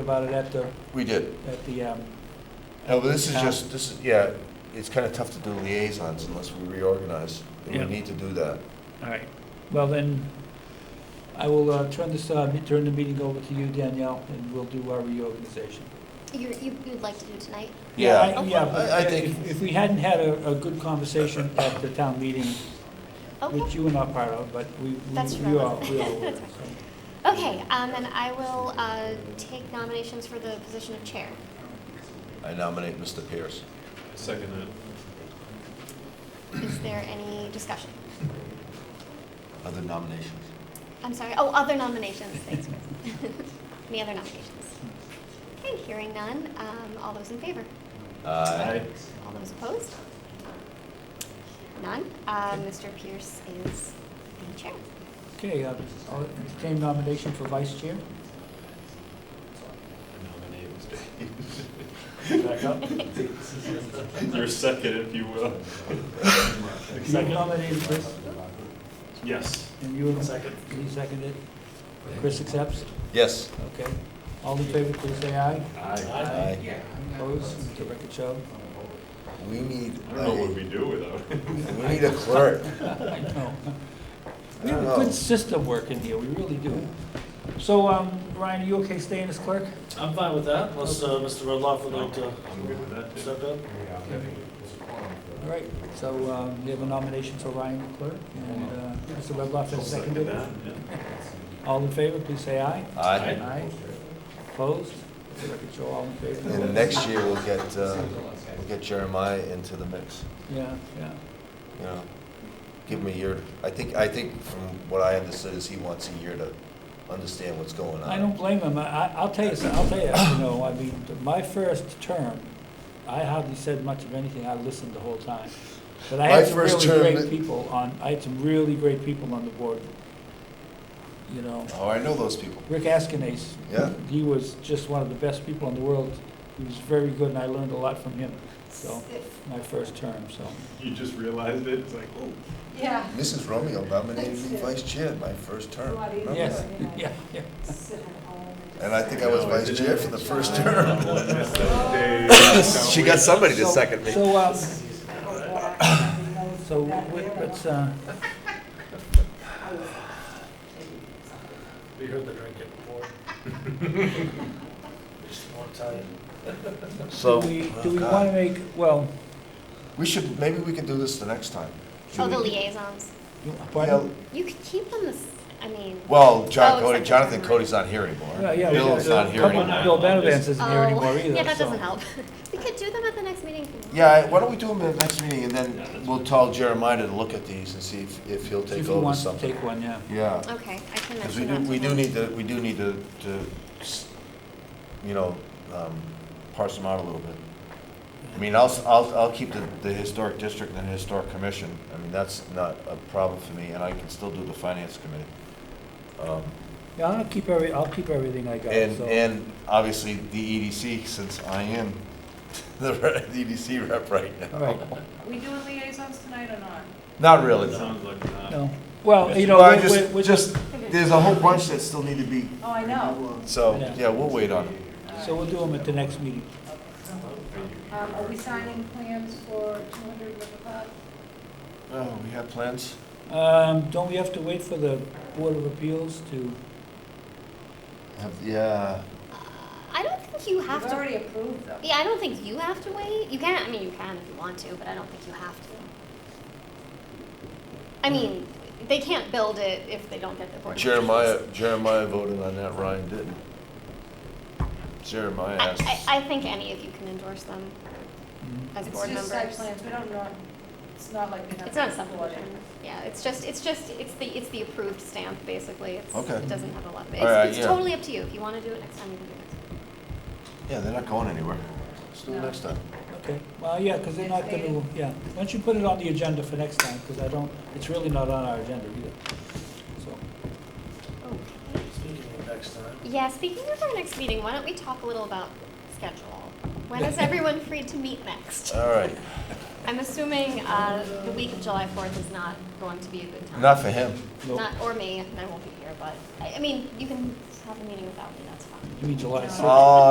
about it at the, We did. at the, um, No, but Oh, this is just, this is, yeah, it's kind of tough to do liaisons unless we reorganize. and Yeah. We need to do that. all right. Well, then, I will uh, turn this, uh, me- turn the meeting over to you, Danielle, and we'll do our reorganization. You, you, you'd like to do tonight? Yeah, I- Yeah, but I- I if- think- if we hadn't had a, a good conversation at the town meeting, which Okay. you were not part of, but we, we- That's we right. all, we all were. That's Okay, um, and I will, uh, take nominations for the position of chair. I nominate Mr. Pierce. Second that. Is there any discussion? Other nominations? I'm sorry, oh, other nominations, thanks, Chris. Any other nominations? Okay, hearing none, um, all those in favor? Aye. All those opposed? None, uh, Mr. Pierce is the chair. Okay, uh, I'll entertain nomination for vice chair. Nominate Mr. Your second, if you will. You nominated Chris, Yes. and you. Second. He seconded. Chris accepts, Yes. okay. All in favor, please say aye. Aye. Aye. Opposed, Let the record show. We need, I don't know what a- we do without him. we need a clerk. I know. I We have don't a good know. system working here, we really do. So, um, Ryan, are you okay staying as clerk? I'm fine with that, unless uh, Mr. Rudloff would like to I'm good with that, too. step in. All right, so, um, we have a nomination for Ryan clerk, and, uh, Mr. Redloff I'll has Second seconded. that, yeah. All in favor, please say aye. Aye. Aye. Opposed? Let the record show all in And favor. next year, we'll get, uh, we'll get Jeremiah into the mix, Yeah, yeah. you know? Give him a year. I think, I think from what I understood is he wants a year to understand what's going on. I don't blame him. I, I- I'll tell you, some- I'll tell you, you know, I mean, my first term, I hardly said much of anything. I listened the whole time. But I My had some first really term great that- people on, I had some really great people on the board. You know, Oh, I know those people. Rick Askinase. Yeah. He was just one of the best people in the world. He was very good and I learned a lot from him, so, my first term, so. You just realized it, it's like, oh. Yeah. Mrs. Romeo nominated me vice chair my first term. What do you Remember? think? Yes, yeah, yeah. Sit at home just- And I think I was No, I vice chair for the first I term. will miss those days. She got somebody to So- second me. So, um, I go back and knows so, that we- they're let's, the uh, ones We heard the drinking before. Just one time. do we, do oh, we wanna make, well, We should, maybe we could do this the next time. Oh, the Julie. liaisons. you- Yeah, pardon? You could keep them as, I mean. Well, John Oh, Cody, second Jonathan time. Cody's not here anymore. Yeah, yeah, we Bill's gotta- not here come on, Bill anymore. Benavance isn't here Oh, anymore either. Yeah, that so- doesn't help. We could do them at the next meeting. if you want. Yeah, I- why don't we do them at the next meeting and then we'll tell Jeremiah to look at these and see if, if he'll See If take you over want to something. take one, yeah. Yeah, Okay, I can because we do, mention that to we do him. need to, we do need to, to, s- you know, um, parse them out a little bit. I mean, I'll, s- I'll, I'll keep the, the historic district and the historic commission. I mean, that's not a problem for me, and I can still do the finance committee. Um, Yeah, I'll keep every, I'll keep everything I got, And, so. and obviously, the EDC, since I am the re- the EDC rep right All now. right, that- We doing liaisons tonight or not? Not really. Sounds like that. no, well, you know, Well, I we're- just- we're, we're just, Just, there's a whole bunch that still need to be, Oh, I know. so, Yeah. yeah, we'll wait on it. so we'll do them at the next meeting. Um, are we signing plans for two hundred Riverpod? Oh, we have plans? Um, don't we have to wait for the Board of Appeals to, Have- Yeah, I don't think you have We've to, already approved them. yeah, I don't think you have to wait. You can, I mean, you can if you want to, but I don't think you have to. Hmm. I mean, they can't build it if they don't get the board. of Jeremiah, Appeals. Jeremiah voted on that, Ryan didn't. Jeremiah I, asked. us- I, I think any of you can endorse them as It's board just site members. plans, we don't know, it's not like we have. It's not a to approve subdivision. Yeah, it's just, it's just, it's the, it's the approved stamp, basically. It's, Okay. it doesn't have a lot of, Alright, it's, it's yeah. totally up to you. If you want to do it next time, you can do it next time. Yeah, they're not going anywhere. Let's do it No. next time. okay, well, yeah, because they're not gonna, yeah. Why don't you put it on the agenda for next time, because I don't, it's really not on our agenda either, so. Okay. Speaking of next time. Yeah, speaking of our next meeting, why don't we talk a little about schedule? When is everyone free to meet next? All right, I'm assuming uh, the week of July 4th is not going to be a good time. not for him. Nope. Not, or me, I won't be here, but, I I mean, you can have a meeting without me, that's fine. You mean July sixth? Oh,